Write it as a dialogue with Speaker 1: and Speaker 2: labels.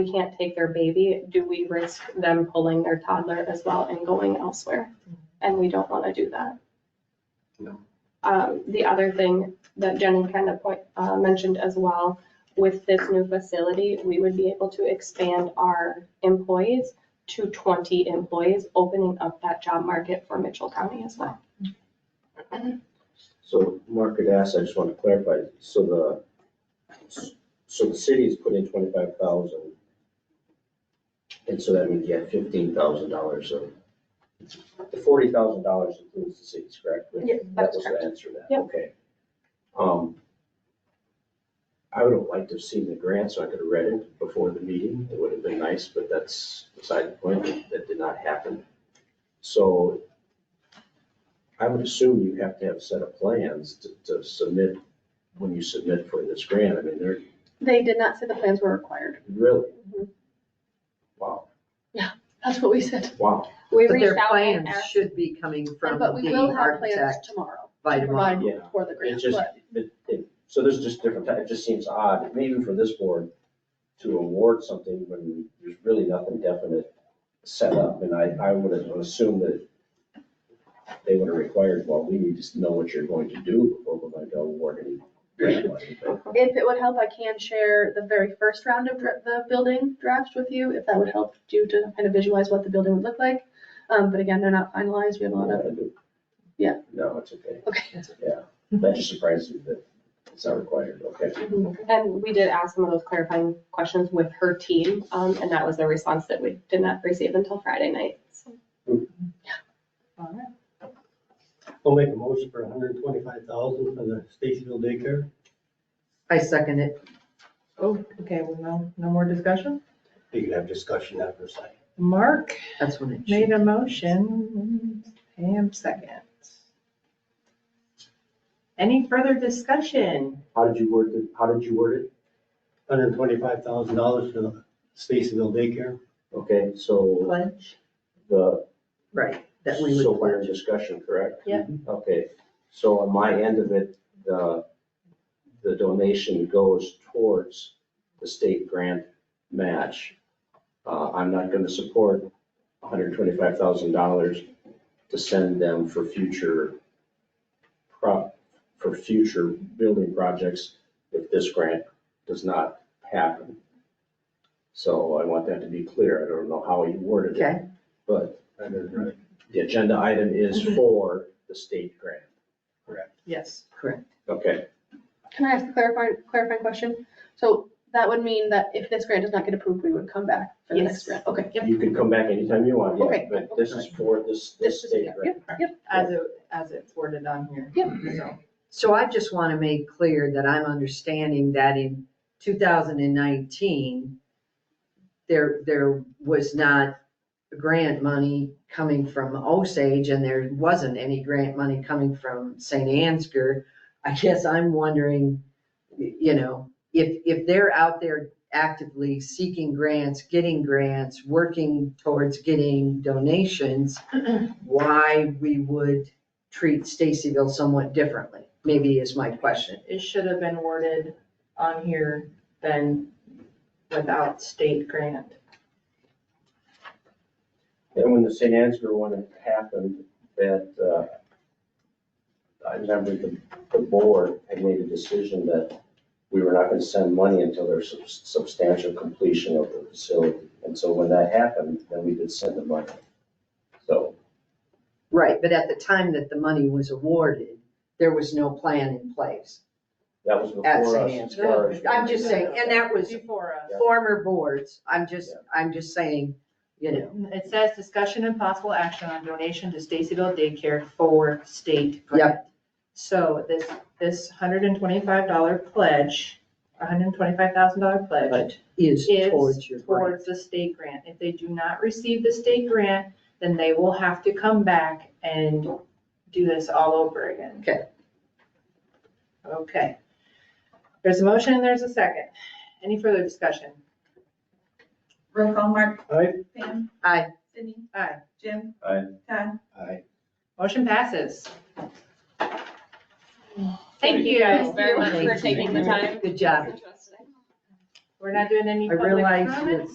Speaker 1: we can't take their baby, do we risk them pulling their toddler as well and going elsewhere? And we don't want to do that.
Speaker 2: No.
Speaker 1: Um, the other thing that Jenny kind of point, uh, mentioned as well, with this new facility, we would be able to expand our employees to twenty employees, opening up that job market for Mitchell County as well.
Speaker 3: So Mark had asked, I just want to clarify, so the, so the city is putting twenty-five thousand. And so that means you have fifteen thousand dollars, so the forty thousand dollars includes the city's, correct?
Speaker 1: Yeah,
Speaker 3: That
Speaker 1: that's
Speaker 3: was
Speaker 1: correct.
Speaker 3: the answer to that,
Speaker 1: Yep.
Speaker 3: okay. Um, I would have liked to have seen the grant, so I could have read it before the meeting, it would have been nice, but that's beside the point, that did not happen. So I would assume you have to have a set of plans to, to submit, when you submit for this grant, I mean, they're
Speaker 4: They did not say the plans were required.
Speaker 3: really, wow,
Speaker 4: That's what we said.
Speaker 3: wow.
Speaker 1: We
Speaker 5: But their
Speaker 1: reached out and
Speaker 5: plans
Speaker 1: asked,
Speaker 5: should be coming from
Speaker 4: But we will
Speaker 5: the
Speaker 4: have plans
Speaker 5: architect
Speaker 4: tomorrow
Speaker 5: by
Speaker 4: to
Speaker 5: tomorrow.
Speaker 4: provide
Speaker 3: Yeah.
Speaker 4: for the
Speaker 3: It
Speaker 4: grant.
Speaker 3: just,
Speaker 4: but-
Speaker 3: it, it, so there's just different, ti- it just seems odd, maybe for this board, to award something when there's really nothing definite set up, and I, I would have assumed that they would have required, well, we need to know what you're going to do before we're going to award any grant money.
Speaker 1: Uh-huh.
Speaker 3: but-
Speaker 4: If it would help, I can share the very first round of dra- the building drafts with you, if that would help you to kind of visualize what the building would look like. Um, but again, they're not finalized. We have a lot of, Yeah.
Speaker 3: No, it's okay.
Speaker 4: okay.
Speaker 3: Yeah, that just surprised me that it's not required, okay.
Speaker 4: mm-hmm.
Speaker 1: and we did ask some of those clarifying questions with her team, um, and that was the response that we did not receive until Friday night. So
Speaker 6: I'll make a motion for hundred and twenty-five thousand for the Stacyville daycare.
Speaker 5: I second it.
Speaker 7: Oh, okay, well, no, no more discussion.
Speaker 6: You can have discussion after second.
Speaker 7: Mark
Speaker 5: That's when it should.
Speaker 7: made a motion, Pam second. Any further discussion?
Speaker 3: How did you word it, how did you word
Speaker 6: Hundred and twenty-five thousand dollars for the Stacyville daycare.
Speaker 3: it? Okay, so
Speaker 7: Pledge.
Speaker 3: the,
Speaker 5: Right, that we
Speaker 3: so
Speaker 5: would
Speaker 3: we're in
Speaker 5: pledge.
Speaker 3: discussion, correct?
Speaker 7: Yeah.
Speaker 3: Okay, so on my end of it, the, the donation goes towards the state grant match. Uh, I'm not gonna support hundred and twenty-five thousand dollars to send them for future prop, for future building projects if this grant does not happen. So I want that to be clear. I don't know how you worded it,
Speaker 5: Okay,
Speaker 3: but
Speaker 6: That is right.
Speaker 3: the agenda item is
Speaker 5: Mm-hmm.
Speaker 3: for the state grant.
Speaker 7: Yes.
Speaker 5: correct.
Speaker 3: Okay,
Speaker 4: Can I ask a clarifying, clarifying question? So that would mean that if this grant does not get approved, we would come back for the next
Speaker 7: Yes.
Speaker 4: grant. Okay, yep.
Speaker 3: you can come back anytime you want, yeah,
Speaker 4: Okay.
Speaker 3: but this is for this, this
Speaker 4: This is,
Speaker 3: state
Speaker 4: yep,
Speaker 3: grant.
Speaker 4: yep, yep.
Speaker 7: As it, as it's worded on here.
Speaker 4: Yep.
Speaker 7: So,
Speaker 5: So I just want to make clear that I'm understanding that in 2019, there, there was not grant money coming from Osage and there wasn't any grant money coming from St. Ansgar. I guess I'm wondering, you know, if, if they're out there actively seeking grants, getting grants, working towards getting donations, why we would treat Stacyville somewhat differently, maybe is my question.
Speaker 7: It should have been worded on here then without state grant.
Speaker 3: And when the St. Ansgar one happened, that, uh, I remember the, the board had made a decision that we were not gonna send money until there's sub- substantial completion of the facility. And so when that happened, then we did send the money. So,
Speaker 5: Right, but at the time that the money was awarded, there was no plan in place
Speaker 3: that was
Speaker 5: at
Speaker 3: before
Speaker 5: St.
Speaker 3: us. as far
Speaker 5: Anne's.
Speaker 3: as-
Speaker 5: I'm just saying, and that was
Speaker 7: Before us.
Speaker 5: former boards, I'm just,
Speaker 3: Yeah.
Speaker 5: I'm just saying, you know,
Speaker 7: It says discussion and possible action on donation to Stacyville Daycare for state grant. So this, this hundred and twenty-five dollar pledge, hundred and twenty-five thousand dollar pledge
Speaker 5: is towards your
Speaker 7: is
Speaker 5: grant.
Speaker 7: towards the state grant. If they do not receive the state grant, then they will have to come back and do this all over again.
Speaker 5: Okay.
Speaker 7: Okay. There's a motion and there's a second. Any further discussion?
Speaker 8: Roll call, Mark.
Speaker 6: Aye.
Speaker 8: Pam.
Speaker 5: Aye.
Speaker 8: Sydney.
Speaker 7: Aye.
Speaker 8: Jim.
Speaker 3: Aye.
Speaker 8: Todd.
Speaker 3: Aye.
Speaker 7: Motion passes. Thank you guys very much.
Speaker 1: Thank you for taking the time.
Speaker 5: Good job.
Speaker 7: We're not doing any
Speaker 5: I
Speaker 7: public
Speaker 5: realize
Speaker 7: comments.